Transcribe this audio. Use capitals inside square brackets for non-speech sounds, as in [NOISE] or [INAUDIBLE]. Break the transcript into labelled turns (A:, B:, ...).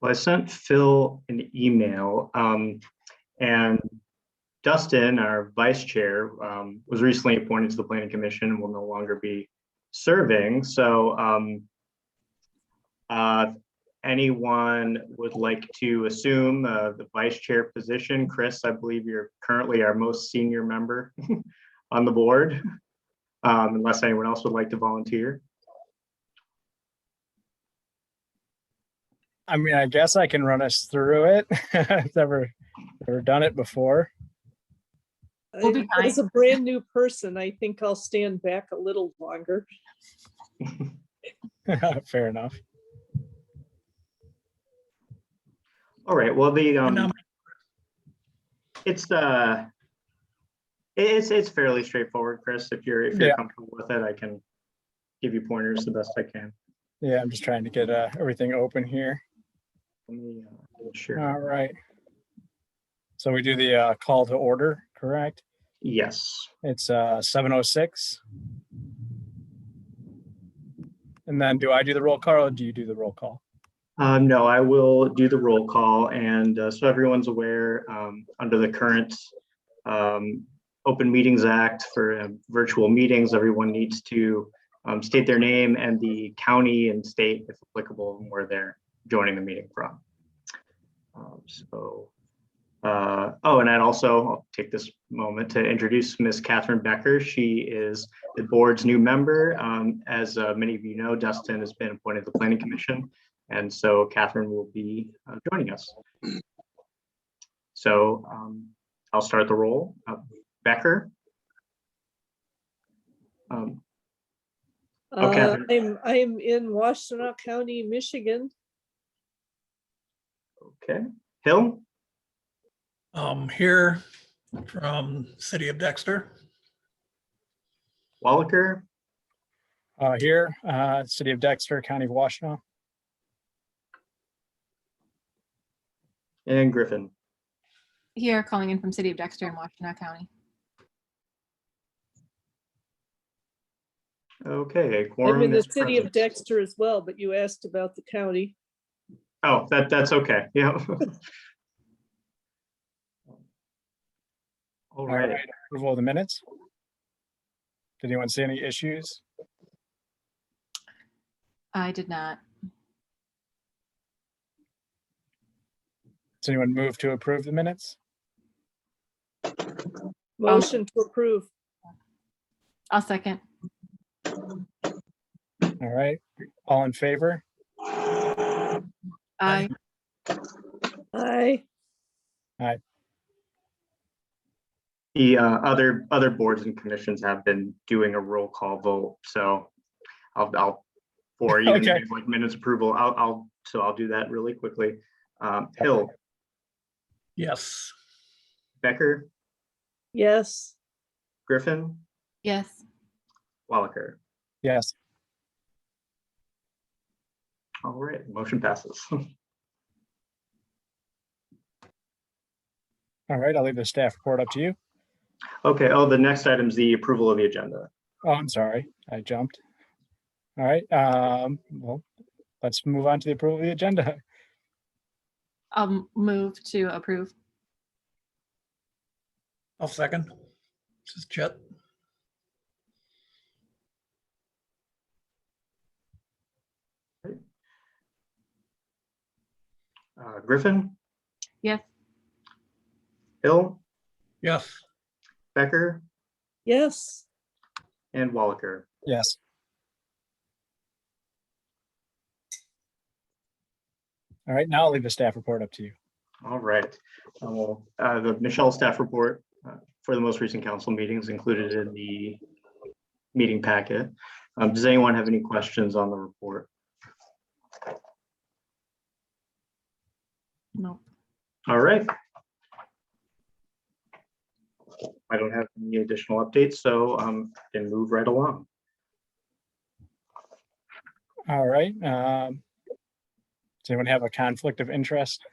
A: Well, I sent Phil an email, um, and Dustin, our vice chair, um, was recently appointed to the planning commission and will no longer be serving, so, um, uh, anyone would like to assume, uh, the vice chair position, Chris, I believe you're currently our most senior member [LAUGHS] on the board, um, unless anyone else would like to volunteer.
B: I mean, I guess I can run us through it. [LAUGHS] I've never, never done it before. [LAUGHS]
C: We'll be fine.
D: As a brand new person, I think I'll stand back a little longer.
B: Fair enough.
A: All right, well, the,
E: I'm-
A: um, it's, uh, it- it's, it's fairly straightforward, Chris. If you're, if you're
B: Yeah.
A: comfortable with it, I can give you pointers the best I can.
B: Yeah, I'm just trying to get uh, everything open here.
A: Let me, uh, Sure.
B: All right. So we do the uh, call to order, correct?
A: Yes,
B: It's uh, 7:06. And then do I do the roll call or do you do the roll call?
A: um, no, I will do the roll call and, uh, so everyone's aware, um, under the current, um, Open Meetings Act for uh, virtual meetings, everyone needs to, um, state their name and the county and state, if applicable, where they're joining the meeting from. Um, So, uh, oh, and I'd also I'll take this moment to introduce Miss Catherine Becker. She is the board's new member. Um, As uh, many of you know, Dustin has been appointed to the Planning Commission, and so Catherine will be uh, joining us. So um, I'll start the roll. Uh, Becker? Um, Oh,
D: Uh,
A: Catherine.
D: I'm, I'm in Washtenaw County, Michigan.
A: Okay, Hill?
E: Um, here from City of Dexter.
A: Wallaker,
B: Uh, Here, uh, City of Dexter, County of Washtenaw.
A: and Griffin.
F: Here, calling in from City of Dexter in Washtenaw County.
A: Okay. a quorum
D: I'm in the
A: is
D: city of
A: present.
D: Dexter as well, but you asked about the county.
A: Oh, that, that's okay, yeah. [LAUGHS] All
B: All
A: right,
B: right, approval of the minutes. Did anyone see any issues?
F: I did not.
B: Does anyone move to approve the minutes?
D: Motion to approve.
F: I'll second.
B: All right, all in favor?
F: I,
D: Aye.
A: the uh, other, other boards and commissions have been doing a roll call vote, so I'll, I'll, for even
B: Okay.
A: things like minutes approval, I'll, I'll, so I'll do that really quickly. Um, Hill,
E: Yes.
A: Becker,
D: Yes.
A: Griffin,
F: yes,
A: Wallaker.
B: Yes,
A: All right, motion passes. [LAUGHS]
B: all right, I'll leave the staff report up to you.
A: Okay, oh, the next item is the approval of the agenda.
B: Oh, I'm sorry, I jumped. All right, um, well, let's move on to the approval of the agenda. [LAUGHS]
F: I'll move to approve.
E: I'll second. This is Chet.
A: Uh, Griffin,
F: Yes,
A: Hill,
E: Yes.
A: Becker,
D: Yes.
A: and Wallaker.
B: Yes. All right, now I'll leave the staff report up to you.
A: All right. Uh, well, uh, The Michelle staff report uh, for the most recent council meetings included in the meeting packet. Um, Does anyone have any questions on the report?
F: no,
A: All right. I don't have any additional updates, so um, can move right along.
B: All right, um, does anyone have a conflict of interest?